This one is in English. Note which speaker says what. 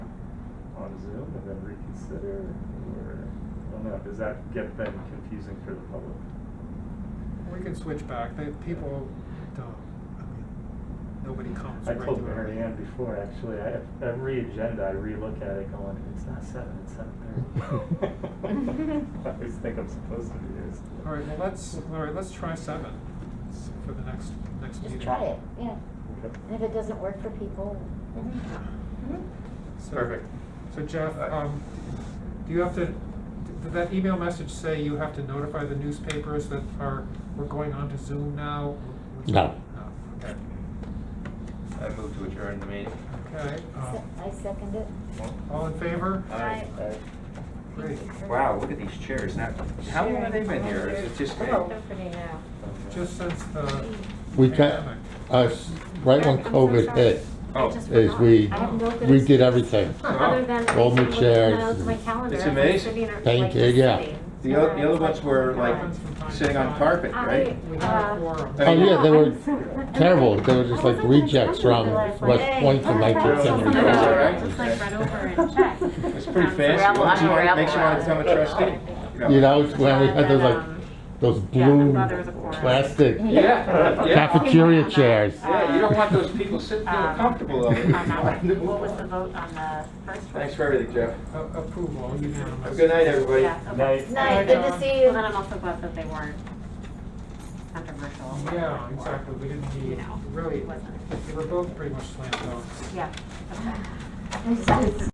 Speaker 1: Zoom and then reconsider, or, I don't know, does that get then confusing for the public?
Speaker 2: We can switch back, they, people don't, I mean, nobody comes
Speaker 1: I
Speaker 2: regularly.
Speaker 1: told Mary Ann before, actually, I, every agenda, I relook at it going, it's not seven, it's seven thirty. I always think I'm supposed to be there.
Speaker 2: All right, well, let's, all right, let's try seven s- for the next, next meeting.
Speaker 3: Just try it, yeah.
Speaker 1: Okay.
Speaker 3: And if it doesn't work for people.
Speaker 2: So-
Speaker 4: Perfect.
Speaker 2: So Jeff,
Speaker 4: Alright.
Speaker 2: um, do you have to, did that email message say you have to notify the newspapers that are, we're going on to Zoom now?
Speaker 5: No.
Speaker 2: No, okay,
Speaker 4: I move to adjourn the meeting.
Speaker 2: okay,
Speaker 5: Uh-huh.
Speaker 3: Se-
Speaker 2: um,
Speaker 3: I second it.
Speaker 2: all in favor?
Speaker 4: Aye.
Speaker 1: Alright.
Speaker 2: Great.
Speaker 4: Wow, look at these chairs now. How long have they been here? Is it just me?
Speaker 6: Hello. Company now.
Speaker 2: Just since the
Speaker 5: We got,
Speaker 2: pandemic.
Speaker 5: us, right when
Speaker 6: I'm so
Speaker 5: COVID
Speaker 6: sorry.
Speaker 5: hit,
Speaker 4: Oh,
Speaker 6: I just
Speaker 5: is
Speaker 6: forgot.
Speaker 5: we-
Speaker 6: I have no good
Speaker 5: we did
Speaker 6: excuse
Speaker 5: everything.
Speaker 6: Other than.
Speaker 5: Rolled the
Speaker 6: I looked
Speaker 5: chairs.
Speaker 6: at my calendar.
Speaker 4: It's
Speaker 6: I was
Speaker 4: amazing.
Speaker 6: sitting at,
Speaker 5: Thank
Speaker 6: like,
Speaker 5: you, yeah.
Speaker 6: sitting.
Speaker 4: The oth-
Speaker 6: And
Speaker 4: the
Speaker 6: I
Speaker 4: other
Speaker 6: was
Speaker 4: ones
Speaker 6: like,
Speaker 4: were
Speaker 6: oh my
Speaker 4: like
Speaker 2: Happens from time to
Speaker 4: sitting on
Speaker 2: time.
Speaker 4: carpet,
Speaker 6: I-
Speaker 4: right?
Speaker 2: We
Speaker 6: Uh,
Speaker 2: have a quorum.
Speaker 5: oh yeah, they
Speaker 6: Yeah,
Speaker 5: were
Speaker 6: I'm so-
Speaker 5: terrible, they were just
Speaker 6: I
Speaker 5: like
Speaker 6: wasn't gonna
Speaker 5: rejects
Speaker 6: tell you
Speaker 5: from
Speaker 6: the last
Speaker 5: West
Speaker 6: one.
Speaker 5: Point
Speaker 6: Hey,
Speaker 5: from
Speaker 6: I
Speaker 5: nineteen
Speaker 6: thought
Speaker 4: something
Speaker 5: seventy.
Speaker 4: about it, right?
Speaker 6: Just like run over and check.
Speaker 4: It's pretty
Speaker 6: Um,
Speaker 4: fancy.
Speaker 6: Scrabble,
Speaker 4: Once you
Speaker 6: I'm
Speaker 4: want, it
Speaker 6: Scrabble.
Speaker 4: makes you want to become a trustee.
Speaker 5: You know, it's when we had those
Speaker 6: But,
Speaker 5: like,
Speaker 6: um,
Speaker 5: those
Speaker 6: yeah, my
Speaker 5: blue
Speaker 6: brother was a foreigner.
Speaker 5: plastic
Speaker 4: Yeah, yeah.
Speaker 5: cafeteria chairs.
Speaker 4: Yeah, you don't want those people sitting there
Speaker 6: Um,
Speaker 4: comfortable over
Speaker 6: on that one. What was the
Speaker 4: there.
Speaker 6: vote on the first one?
Speaker 4: Thanks for everything, Jeff.
Speaker 2: A- Approval, unanimous.
Speaker 4: Have a good night, everybody.
Speaker 6: Yeah, okay.
Speaker 1: Night.
Speaker 3: Night, good to
Speaker 2: Um,
Speaker 3: see
Speaker 6: Well,
Speaker 3: you.
Speaker 6: then I'm also glad that they weren't controversial.
Speaker 2: Yeah,
Speaker 6: or,
Speaker 2: exactly, we didn't
Speaker 6: You
Speaker 2: need,
Speaker 6: know,
Speaker 2: really,
Speaker 6: wasn't,
Speaker 2: they were both pretty much slam dunks.
Speaker 6: yeah, okay.